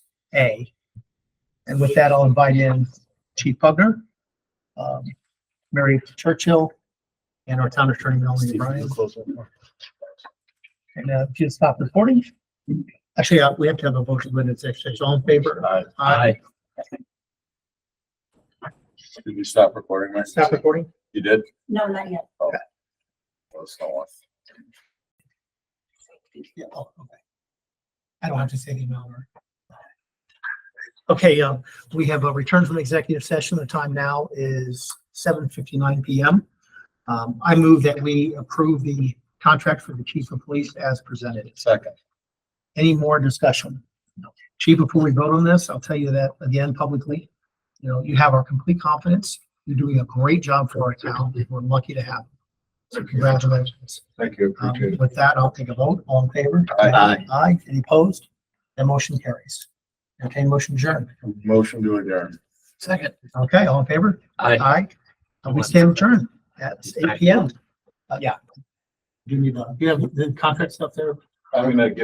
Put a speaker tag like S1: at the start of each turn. S1: A. And with that, I'll invite in Chief Pugner, um, Mary Churchill, and our town attorney Melanie Bryan. And uh, if you stop recording. Actually, uh, we have to have a motion when it's exercised. All in favor?
S2: Aye.
S1: Aye.
S2: Did you stop recording, Mike?
S1: Stop recording.
S2: You did?
S3: No, not yet.
S2: Well, it's not on.
S1: Yeah, oh, okay. I don't have to say the amount or. Okay, um, we have a return from executive session. The time now is seven fifty-nine PM. Um, I move that we approve the contract for the chief of police as presented.
S2: Second.
S1: Any more discussion? No. Chief, before we vote on this, I'll tell you that again publicly. You know, you have our complete confidence. You're doing a great job for our town. We're lucky to have. you. So congratulations.
S2: Thank you,
S1: Um, With that, I'll take a vote. All in favor?
S2: Aye.
S1: Aye. Any opposed? That motion carries. Okay, motion adjourned.
S2: Motion to adjourn.
S1: Second. Okay, all in favor?
S4: Aye.
S1: Aye. And We stand adjourned at eight P M. Uh, yeah. Do you need, uh, do you have the contract stuff there?
S2: I'm gonna give